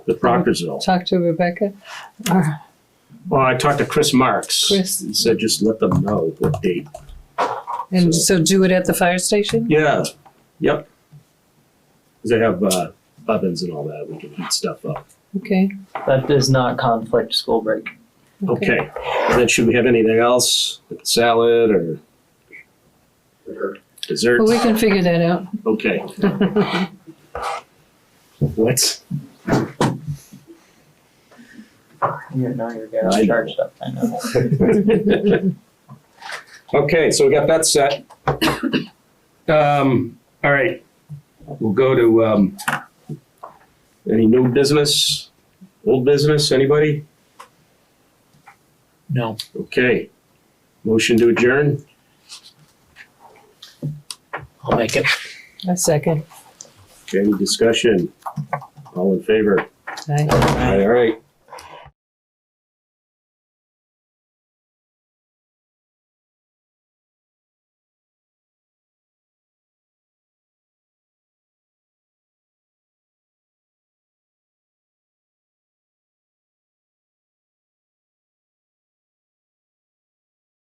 the Proctorsville. Talk to Rebecca. Or- Well, I talked to Chris Marks. Chris. He said just let them know what date. And so do it at the fire station? Yeah, yep. 'Cause They have uh, ovens and all that. We can heat stuff up. Okay. That does not conflict school break. Okay. And then should we have anything else? Like salad or dessert? Well, we can figure that out. Okay. What? You know you're getting all I know. charged up, I know. Okay, so we got that set. Um, all right, we'll go to, um, any new business, old business, anybody? No. Okay. Motion to adjourn? I'll make it. A second. Any discussion? All in favor? Aye. All right, all right.